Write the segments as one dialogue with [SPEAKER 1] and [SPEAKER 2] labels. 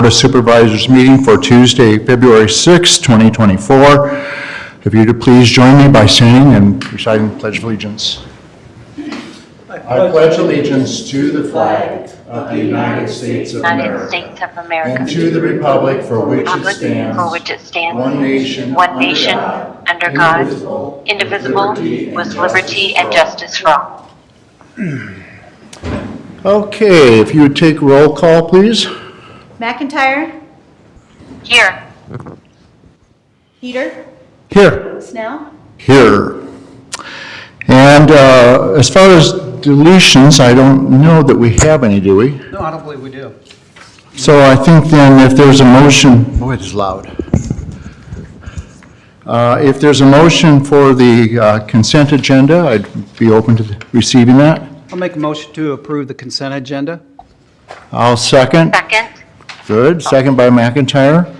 [SPEAKER 1] Board of Supervisors meeting for Tuesday, February 6, 2024. If you'd please join me by standing and reciting the Pledge of Allegiance. I pledge allegiance to the flag of the United States of
[SPEAKER 2] United States
[SPEAKER 1] America
[SPEAKER 2] of America.
[SPEAKER 1] and to the republic for which it
[SPEAKER 2] Republic
[SPEAKER 1] stands,
[SPEAKER 2] For which it stands.
[SPEAKER 1] one nation,
[SPEAKER 2] one
[SPEAKER 1] under
[SPEAKER 2] nation,
[SPEAKER 1] God,
[SPEAKER 2] under God,
[SPEAKER 1] indivisible,
[SPEAKER 2] indivisible,
[SPEAKER 1] with liberty and
[SPEAKER 2] with
[SPEAKER 1] justice
[SPEAKER 2] liberty
[SPEAKER 1] for
[SPEAKER 2] and
[SPEAKER 1] all.
[SPEAKER 2] justice for all.
[SPEAKER 1] Okay, if you would take roll call, please.
[SPEAKER 3] McIntyre,
[SPEAKER 2] Here,
[SPEAKER 3] Peter,
[SPEAKER 1] Here.
[SPEAKER 3] Snell,
[SPEAKER 1] Here. And uh, as far as deletions, I don't know that we have any, do we?
[SPEAKER 4] No, I don't believe we do.
[SPEAKER 1] So I think then if there's a motion, oh, it is loud. Uh, If there's a motion for the uh, consent agenda, I'd be open to receiving that.
[SPEAKER 4] I'll make a motion to approve the consent agenda.
[SPEAKER 1] I'll second.
[SPEAKER 2] second.
[SPEAKER 1] Good, second by McIntyre.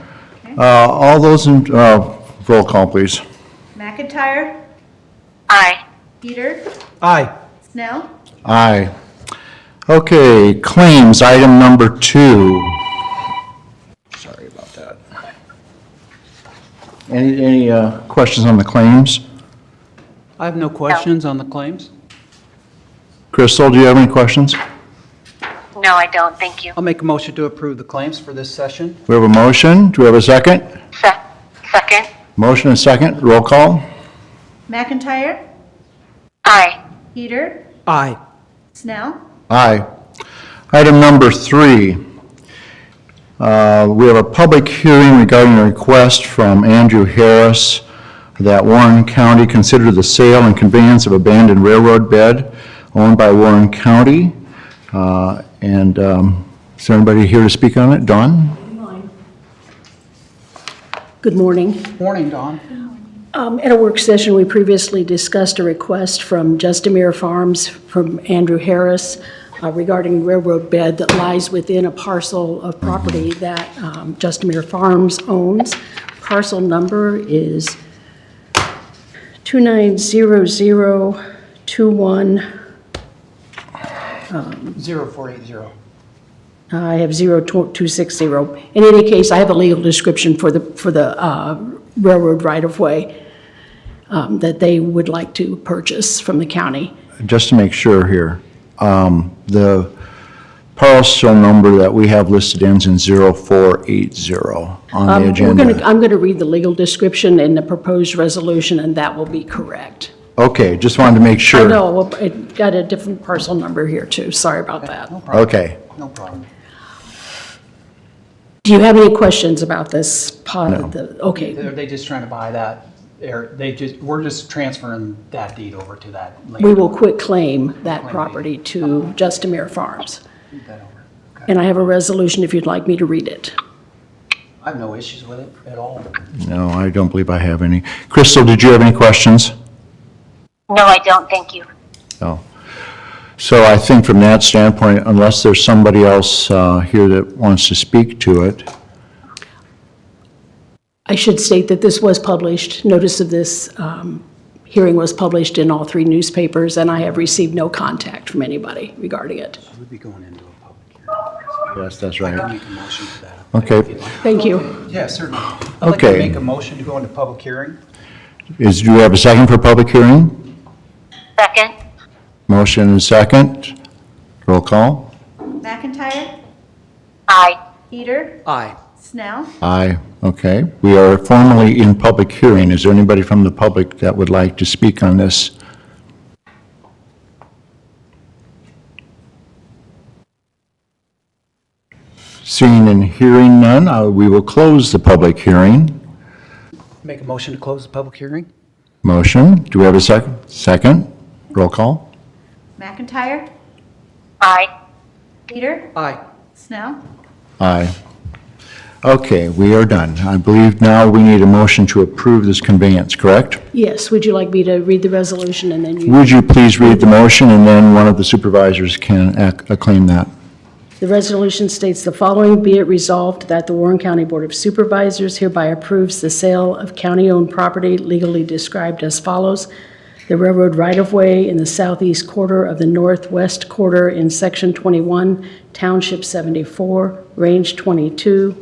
[SPEAKER 1] Uh, All those in, uh, roll call, please.
[SPEAKER 3] McIntyre,
[SPEAKER 2] Aye.
[SPEAKER 3] Peter,
[SPEAKER 4] Aye.
[SPEAKER 3] Snell,
[SPEAKER 1] Aye. Okay, claims, item number two. Sorry about that. Any, any uh, questions on the claims?
[SPEAKER 4] I have no questions on the claims.
[SPEAKER 1] Crystal, do you have any questions?
[SPEAKER 2] No, I don't, thank you.
[SPEAKER 4] I'll make a motion to approve the claims for this session.
[SPEAKER 1] We have a motion, do we have a second?
[SPEAKER 2] Se- Second.
[SPEAKER 1] Motion and second, roll call?
[SPEAKER 3] McIntyre,
[SPEAKER 2] Aye.
[SPEAKER 3] Peter,
[SPEAKER 4] Aye.
[SPEAKER 3] Snell,
[SPEAKER 1] Aye. Item number three, uh, we have a public hearing regarding a request from Andrew Harris that Warren County consider the sale and conveyance of abandoned railroad bed owned by Warren County. Uh, And um, is there anybody here to speak on it? Dawn?
[SPEAKER 5] Good morning.
[SPEAKER 4] Morning, Dawn.
[SPEAKER 5] Um, At a work session, we previously discussed a request from Justamere Farms from Andrew Harris uh, regarding railroad bed that lies within a parcel of property that um, Justamere Farms owns. Parcel number is 290021,
[SPEAKER 4] Zero four eight zero.
[SPEAKER 5] I have 02260. In any case, I have a legal description for the, for the uh, railroad right-of-way um, that they would like to purchase from the county.
[SPEAKER 1] Just to make sure here, um, the parcel number that we have listed ends in 0480 on the
[SPEAKER 5] Um, we're
[SPEAKER 1] agenda.
[SPEAKER 5] gonna- I'm going to read the legal description in the proposed resolution, and that will be correct.
[SPEAKER 1] Okay, just wanted to make sure.
[SPEAKER 5] I know, well, it got a different parcel number here, too. Sorry about that.
[SPEAKER 1] Okay,
[SPEAKER 4] No problem.
[SPEAKER 5] Do you have any questions about this part of the, okay.
[SPEAKER 4] They're, they just trying to buy that, or they just, we're just transferring that deed over to that
[SPEAKER 5] We
[SPEAKER 4] land.
[SPEAKER 5] will quit claim that property to Justamere Farms.
[SPEAKER 4] that over. Okay.
[SPEAKER 5] And I have a resolution if you'd like me to read it.
[SPEAKER 4] I have no issues with it at all.
[SPEAKER 1] no, I don't believe I have any. Crystal, did you have any questions?
[SPEAKER 2] No, I don't, thank you.
[SPEAKER 1] No. So I think from that standpoint, unless there's somebody else uh, here that wants to speak to it,
[SPEAKER 5] I should state that this was published, notice of this um, hearing was published in all three newspapers, and I have received no contact from anybody regarding it.
[SPEAKER 4] We'd be going into a public hearing.
[SPEAKER 1] yes, that's right.
[SPEAKER 4] Make a motion for that.
[SPEAKER 1] Okay,
[SPEAKER 5] Thank you.
[SPEAKER 4] Yeah, certainly. I'd like to
[SPEAKER 1] Okay.
[SPEAKER 4] make a motion to go into public hearing.
[SPEAKER 1] is, do you have a second for public hearing?
[SPEAKER 2] Second.
[SPEAKER 1] Motion and second, roll call?
[SPEAKER 3] McIntyre,
[SPEAKER 2] Aye.
[SPEAKER 3] Peter,
[SPEAKER 4] Aye.
[SPEAKER 3] Snell,
[SPEAKER 1] Aye, okay. We are formally in public hearing. Is there anybody from the public that would like to speak on this? Seeing and hearing none, uh, we will close the public hearing.
[SPEAKER 4] Make a motion to close the public hearing.
[SPEAKER 1] Motion, do we have a second? Second, roll call?
[SPEAKER 3] McIntyre,
[SPEAKER 2] Aye.
[SPEAKER 3] Peter,
[SPEAKER 4] Aye.
[SPEAKER 3] Snell,
[SPEAKER 1] Aye. Okay, we are done. I believe now we need a motion to approve this conveyance, correct?
[SPEAKER 5] Yes, would you like me to read the resolution and then you?
[SPEAKER 1] Would you please read the motion, and then one of the supervisors can ac- acclaim that?
[SPEAKER 5] The resolution states the following, be it resolved that the Warren County Board of Supervisors hereby approves the sale of county-owned property legally described as follows. The railroad right-of-way in the southeast quarter of the northwest quarter in Section 21, Township 74, Range 22,